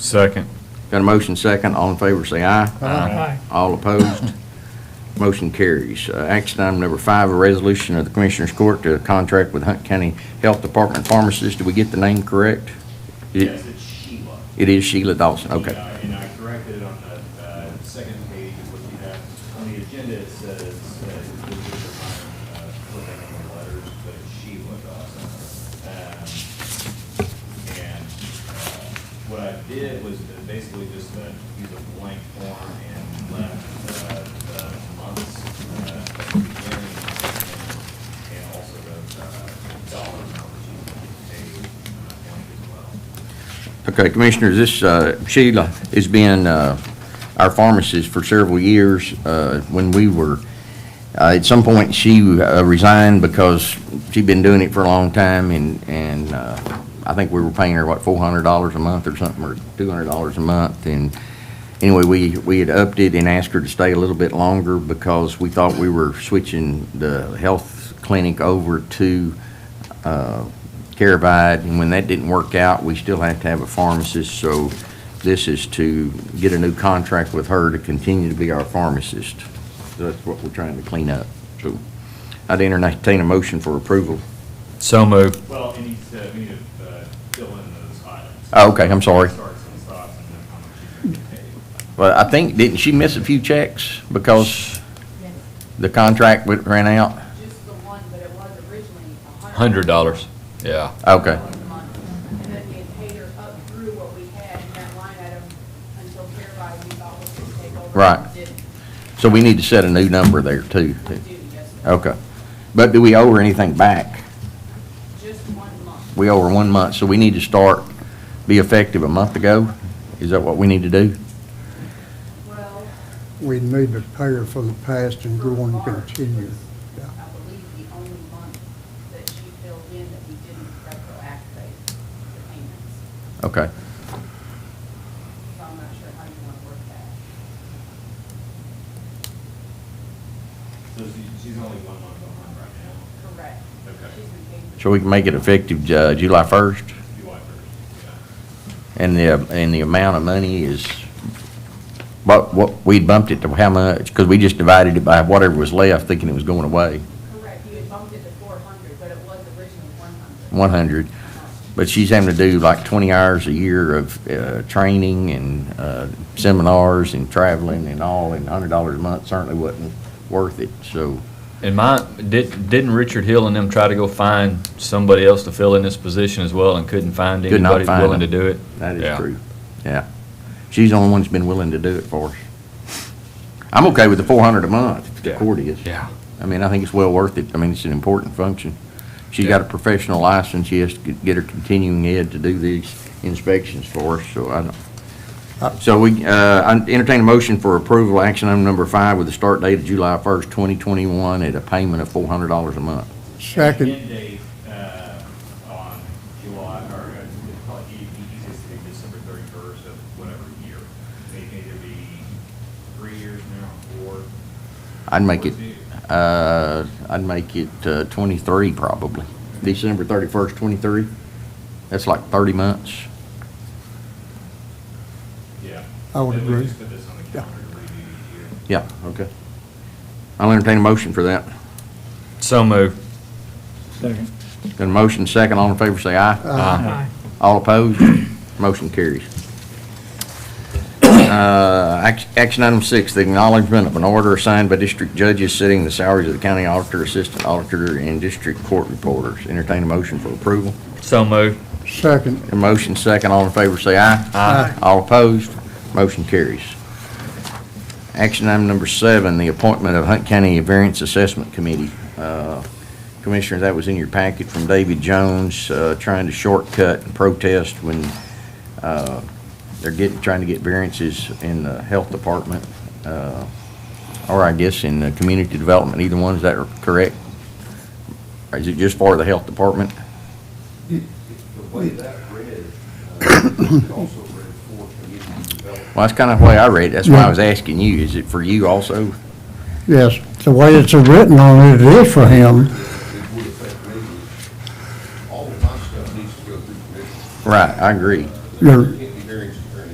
Second. Got a motion second, all in favor say aye. Aye. All opposed, motion carries. Uh, Action item number five, a resolution of the Commissioners Court to contract with Hunt County Health Department pharmacist. Do we get the name correct? It- Yes, it's Sheila. It is Sheila Dawson, Yeah, okay. And Uh, I corrected it on the uh, second page of what you have on the agenda. It says, uh, this is a minor, uh, flipping of the letters, but it's Sheila Dawson. Um, And uh, what I did was to basically just uh, use a blank form and left uh, the months uh, at the beginning and- and also the uh, dollar amount that you paid uh, blank as well. Okay, Commissioners, this uh, Sheila has been uh, our pharmacist for several years. Uh, When we were, uh, at some point, she uh, resigned because she'd been doing it for a long time, and, and uh, I think we were paying her, what, $400 a month or something, or $200 a month, and anyway, we, we had upped it and asked her to stay a little bit longer because we thought we were switching the health clinic over to uh, Caravite, and when that didn't work out, we still had to have a pharmacist, so this is to get a new contract with her to continue to be our pharmacist. So That's what we're trying to clean up, so I'd entertain a motion for approval. So moved. Well, it needs to, we need to uh, fill in those items. Oh, okay, I'm sorry. Starts and stops and then how much you're gonna pay. Well, I think, didn't she miss a few checks because the contract went- ran out? Just the one, but it was originally a Hundred dollars. Yeah. Okay, dollars a month. And then we had paid her up through what we had in that line item until Fairby, we thought was going to take over. Right. Didn't so we need to set a new number there, too. do, yes, sir. Okay, but do we owe her anything back? just one month. we over one month, so we need to start, be effective a month ago? Is that what we need to do? Well, We need to pay her for the past and for go on and March continue. was, Yeah. I believe, the only month that she filled in that we didn't retroactivate the payments. Okay, So I'm not sure how you want to work that. So she- she's only one month behind right now, Correct. Okay. She's been paid. so we can make it effective uh, July July 1st, first, yeah. and the, and the amount of money is, what, what, we bumped it to how much? Because we just divided it by whatever was left, thinking it was going away, Correct, you had bumped it to four hundred, but it was originally one hundred. 100. But she's having to do like 20 hours a year of uh, training and uh, seminars and traveling and all, and $100 a month certainly wasn't worth it, so. And my, did, didn't Richard Hill and them try to go find somebody else to fill in this position as well and couldn't find Could not anybody find willing to them. do it? That is Yeah. true. Yeah. She's the only one that's been willing to do it for us. I'm okay with the four hundred a month, if the Yeah. court is. Yeah. I mean, I think it's well worth it. I mean, it's an important function. She got a Yeah. professional license. She has to get her continuing ed to do these inspections for us, so I don't. So we, uh, I entertain a motion for approval, action item number five, with a start date of July first, twenty twenty-one, at a payment of four hundred dollars a month. Second, End date, uh, on July, or uh, it's probably e- the easiest to be December thirty-first of whatever year. May either be three years now or. I'd make or it, two. uh, I'd make it uh, 23 probably. December 31st, 23. That's like 30 months. Yeah. I would At agree. least Put this on the Yeah. calendar to review each year. Yeah, okay. I'll entertain a motion for that. So moved. Got a motion second, all in favor say aye. Aye. All opposed, motion carries. Uh, ac- Action item six, the acknowledgement of an order signed by district judges setting the salaries of the county auditor, assistant auditor, and district court reporters. Entertain a motion for approval. So moved. second, A motion second, all in favor say aye. Aye. All opposed, motion carries. Action item number seven, the appointment of Hunt County Variance Assessment Committee. Uh, Commissioner, that was in your packet from David Jones, uh, trying to shortcut and protest when uh, they're getting, trying to get variances in the health department, uh, or I guess in the community development, either one, is that correct? Or is it just for the health department? The way that read, uh, it also read for community development. Well, that's kind of the way I read it. That's why I was asking you. Is it for you also? yes. The way it's written on it, it is for him. It would affect me. All of my stuff needs to go through commission. Right, I agree. Your,